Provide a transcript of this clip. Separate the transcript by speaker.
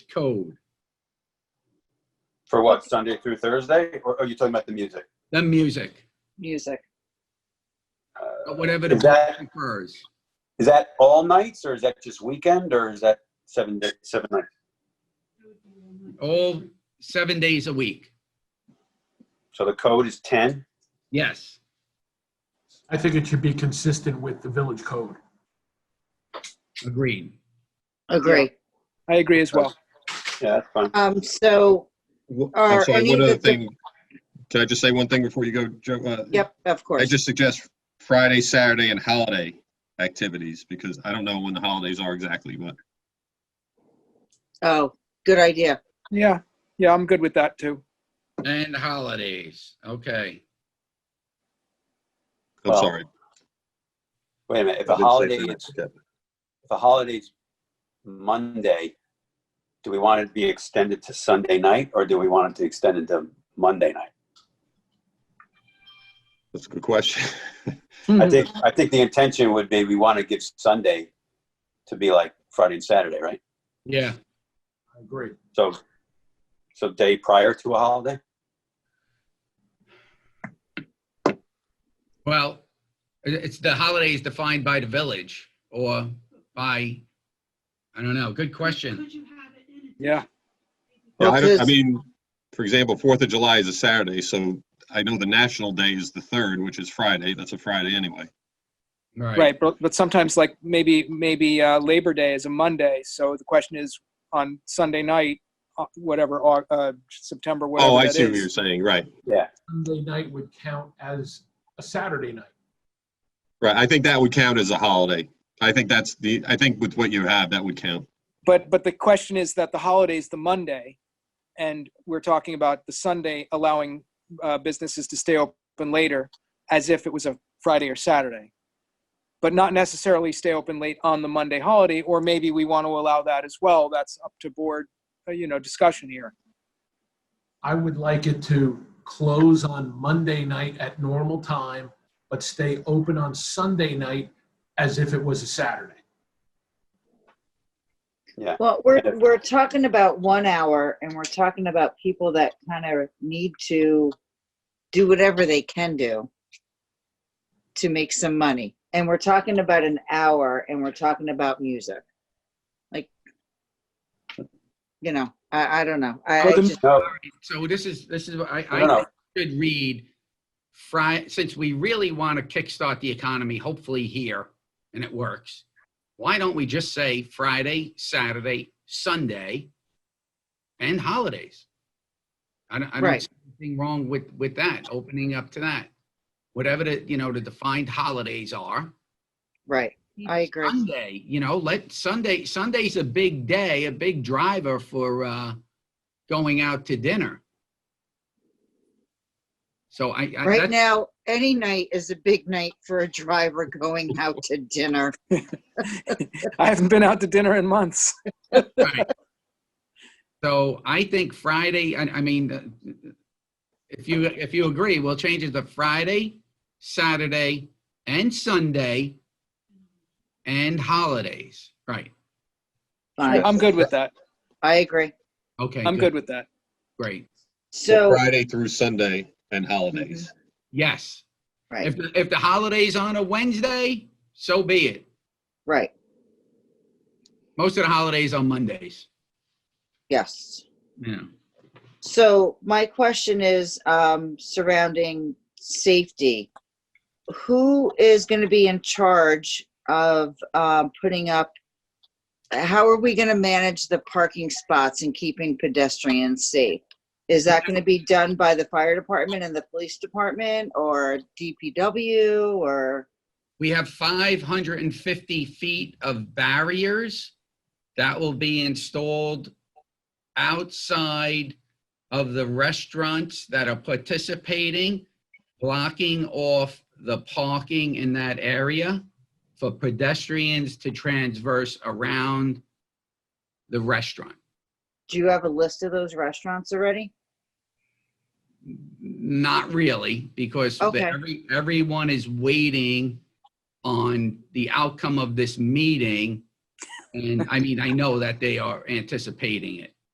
Speaker 1: code,
Speaker 2: For what, Sunday through Thursday? Or are you talking about the music?
Speaker 1: the music,
Speaker 3: music.
Speaker 2: Uh,
Speaker 1: or whatever the
Speaker 2: Is that-
Speaker 1: board prefers.
Speaker 2: Is that all nights or is that just weekend or is that seven, day- seven nights?
Speaker 1: All seven days a week.
Speaker 2: So the code is 10?
Speaker 1: Yes.
Speaker 4: I think it should be consistent with the village code.
Speaker 1: Agreed.
Speaker 3: Agree.
Speaker 5: I agree as well.
Speaker 2: Yeah, that's fine.
Speaker 3: Um, so,
Speaker 6: Wh-
Speaker 3: Or
Speaker 6: I'm sorry,
Speaker 3: any
Speaker 6: one
Speaker 3: of
Speaker 6: other
Speaker 3: the-
Speaker 6: thing. Can I just say one thing before you go, Joe? Uh,
Speaker 3: yep, of
Speaker 6: I
Speaker 3: course.
Speaker 6: just suggest Friday, Saturday, and holiday activities, because I don't know when the holidays are exactly, but
Speaker 3: Oh, good idea.
Speaker 5: Yeah, yeah, I'm good with that too.
Speaker 1: And holidays. Okay.
Speaker 6: I'm
Speaker 2: Well,
Speaker 6: sorry.
Speaker 2: Wait a minute, if
Speaker 6: I
Speaker 2: a
Speaker 6: didn't say
Speaker 2: holiday,
Speaker 6: three
Speaker 2: is-
Speaker 6: nights, okay.
Speaker 2: if a holiday's Monday, do we want it to be extended to Sunday night or do we want it to extend into Monday night?
Speaker 6: That's a good question. Mm-hmm.
Speaker 2: I
Speaker 3: Mm-hmm.
Speaker 2: think, I think the intention would be we want to give Sunday to be like Friday and Saturday, right?
Speaker 1: Yeah.
Speaker 4: I agree.
Speaker 2: So, so day prior to a holiday?
Speaker 1: Well, it- it's the holiday is defined by the village or by, I don't know. Good question.
Speaker 5: Yeah,
Speaker 6: Yeah, I, don't- I
Speaker 3: Because-
Speaker 6: mean, for example, Fourth of July is a Saturday, so I know the national day is the third, which is Friday. That's a Friday anyway.
Speaker 5: right. But, but sometimes like maybe, maybe uh, Labor Day is a Monday. So the question is on Sunday night, uh, whatever, Au- uh, September, whatever
Speaker 6: Oh, I
Speaker 5: that
Speaker 6: see what
Speaker 5: is.
Speaker 6: you're saying. Right.
Speaker 4: Sunday night would count as a Saturday night.
Speaker 6: Right. I think that would count as a holiday. I think that's the, I think with what you have, that would count.
Speaker 5: But, but the question is that the holiday's the Monday and we're talking about the Sunday allowing uh, businesses to stay open later as if it was a Friday or Saturday. But not necessarily stay open late on the Monday holiday, or maybe we want to allow that as well. That's up to board, uh, you know, discussion here.
Speaker 4: I would like it to close on Monday night at normal time, but stay open on Sunday night as if it was a Saturday.
Speaker 3: Well, we're, we're talking about one hour and we're talking about people that kind of need to do whatever they can do to make some money. And we're talking about an hour and we're talking about music. Like, you know, I, I don't know. I, I
Speaker 5: Well, the-
Speaker 3: just,
Speaker 2: No,
Speaker 1: So this is, this is, what I,
Speaker 2: no,
Speaker 1: I
Speaker 2: no.
Speaker 1: should read Fri, since we really want to kickstart the economy, hopefully here, and it works. Why don't we just say Friday, Saturday, Sunday, and holidays? I don't, I don't
Speaker 3: Right.
Speaker 1: see anything wrong with, with that, opening up to that. Whatever the, you know, the defined holidays are.
Speaker 3: right. I agree.
Speaker 1: Sunday, you know, let Sunday, Sunday's a big day, a big driver for uh going out to dinner. So I, I
Speaker 3: Right
Speaker 1: that's-
Speaker 3: now, any night is a big night for a driver going out to dinner.
Speaker 5: I haven't been out to dinner in months.
Speaker 1: Right. So I think Friday, I, I mean, uh, if you, if you agree, we'll change it to Friday, Saturday, and Sunday, and holidays, right?
Speaker 3: Fine.
Speaker 5: I'm good with that.
Speaker 3: I agree.
Speaker 1: Okay.
Speaker 5: I'm good with that.
Speaker 1: Great.
Speaker 3: So,
Speaker 6: Friday through Sunday and holidays.
Speaker 1: Yes.
Speaker 3: right,
Speaker 1: If, the- if the holiday's on a Wednesday, so be it.
Speaker 3: right.
Speaker 1: Most of the holidays on Mondays.
Speaker 3: Yes.
Speaker 1: Yeah.
Speaker 3: So my question is um, surrounding safety. Who is going to be in charge of um, putting up? How are we going to manage the parking spots and keeping pedestrians safe? Is that going to be done by the fire department and the police department or DPW or?
Speaker 1: We have 550 feet of barriers that will be installed outside of the restaurants that are participating, blocking off the parking in that area for pedestrians to transverse around the restaurant.
Speaker 3: Do you have a list of those restaurants already?
Speaker 1: Not really, because the-
Speaker 3: Okay.
Speaker 1: every, everyone is waiting on the outcome of this meeting. And I mean, I know that they are anticipating it.